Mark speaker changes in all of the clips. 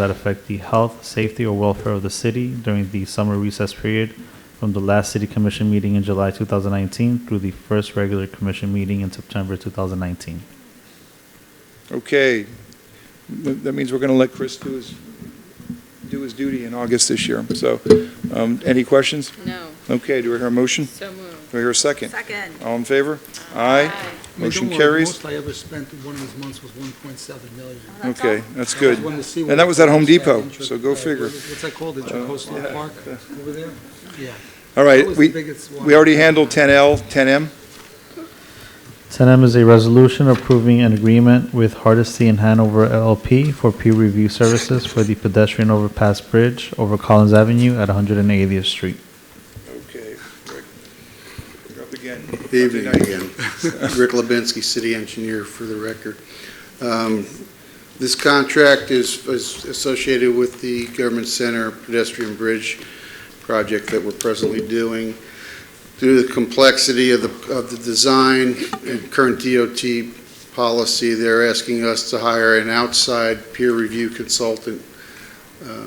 Speaker 1: that affect the health, safety, or welfare of the city during the summer recess period from the last city commission meeting in July 2019 through the first regular commission meeting in September 2019.
Speaker 2: Okay, Th- that means we're going to let Chris do his, do his duty in August this year. So, um, any questions?
Speaker 3: No,
Speaker 2: Okay, do I hear a motion?
Speaker 3: so moved.
Speaker 2: Do I hear a second?
Speaker 3: Second.
Speaker 2: All in favor? Aye.
Speaker 4: I mean, don't
Speaker 2: Motion
Speaker 4: worry,
Speaker 2: carries.
Speaker 4: The most I ever spent in one of these months was 1.7 million.
Speaker 2: Okay, that's
Speaker 4: I just
Speaker 2: good.
Speaker 4: wanted to see
Speaker 2: And
Speaker 4: what
Speaker 2: that was at Home
Speaker 4: that
Speaker 2: Depot,
Speaker 4: intra-
Speaker 2: so go
Speaker 4: uh,
Speaker 2: figure. Uh,
Speaker 4: What's that called,
Speaker 2: yeah.
Speaker 4: Intercoastal Park over there? Yeah.
Speaker 2: All
Speaker 4: That
Speaker 2: right,
Speaker 4: was the
Speaker 2: we,
Speaker 4: biggest one.
Speaker 2: we already handled 10L, 10M.
Speaker 1: 10M is a resolution approving an agreement with Hardesty and Hanover LLP for peer review services for the pedestrian overpass bridge over Collins Avenue at 180th Street.
Speaker 2: Okay, Rick, you're up again. Monday
Speaker 5: Evening
Speaker 2: night.
Speaker 5: again. Rick Lebinsky, city engineer for the record. Um, This contract is is associated with the Government Center pedestrian bridge project that we're presently doing. Due to the complexity of the, of the design and current DOT policy, they're asking us to hire an outside peer review consultant uh,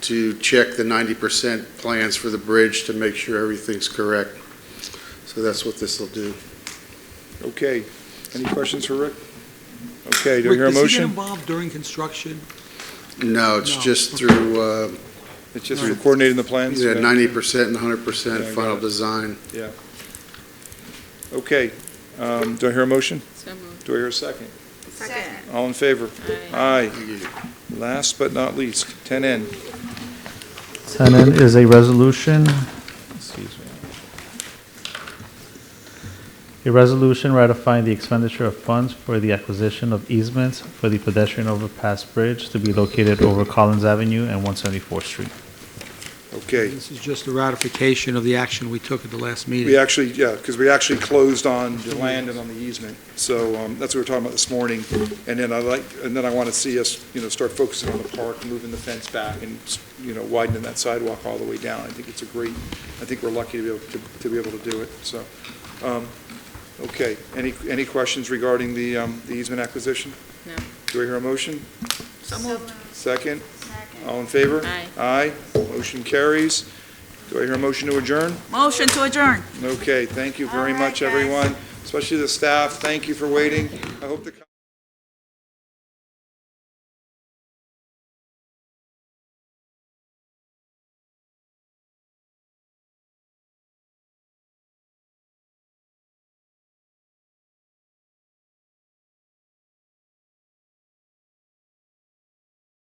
Speaker 5: to check the 90% plans for the bridge to make sure everything's correct. So that's what this will do.
Speaker 2: Okay, any questions for Rick? Okay, do I hear a
Speaker 4: Rick, Does he get
Speaker 2: motion?
Speaker 4: involved during construction?
Speaker 5: No, it's
Speaker 4: No.
Speaker 5: just through, uh,
Speaker 2: It's just for coordinating the plans?
Speaker 5: yeah,
Speaker 2: Okay.
Speaker 5: ninety percent and hundred
Speaker 2: Yeah,
Speaker 5: percent
Speaker 2: I got
Speaker 5: final
Speaker 2: it.
Speaker 5: design.
Speaker 2: Okay, um, do I hear a motion?
Speaker 3: So moved.
Speaker 2: Do I hear a second?
Speaker 3: Second.
Speaker 2: All in favor?
Speaker 3: Aye.
Speaker 2: Aye. Last but not least, 10N.
Speaker 1: 10N is a resolution, excuse me. A resolution ratifying the expenditure of funds for the acquisition of easements for the pedestrian overpass bridge to be located over Collins Avenue and 174th Street.
Speaker 2: Okay,
Speaker 4: This is just a ratification of the action we took at the last
Speaker 2: we
Speaker 4: meeting.
Speaker 2: actually, yeah, because we actually closed on the land and on the easement. So um, that's what we were talking about this morning. And then I like, and then I want to see us, you know, start focusing on the park, moving the fence back and, you know, widening that sidewalk all the way down. I think it's a great, I think we're lucky to be able, to- to be able to do it, so. um, Okay, any, any questions regarding the um, the easement acquisition?
Speaker 3: No.
Speaker 2: Do I hear a motion?
Speaker 3: So moved.
Speaker 2: Second? All in favor?
Speaker 3: Aye.
Speaker 2: Aye. Motion carries. Do I hear a motion to adjourn?
Speaker 6: Motion to adjourn.
Speaker 2: Okay, thank you very
Speaker 6: All right,
Speaker 2: much,
Speaker 6: guys.
Speaker 2: everyone, especially the staff. Thank you for waiting. I hope the.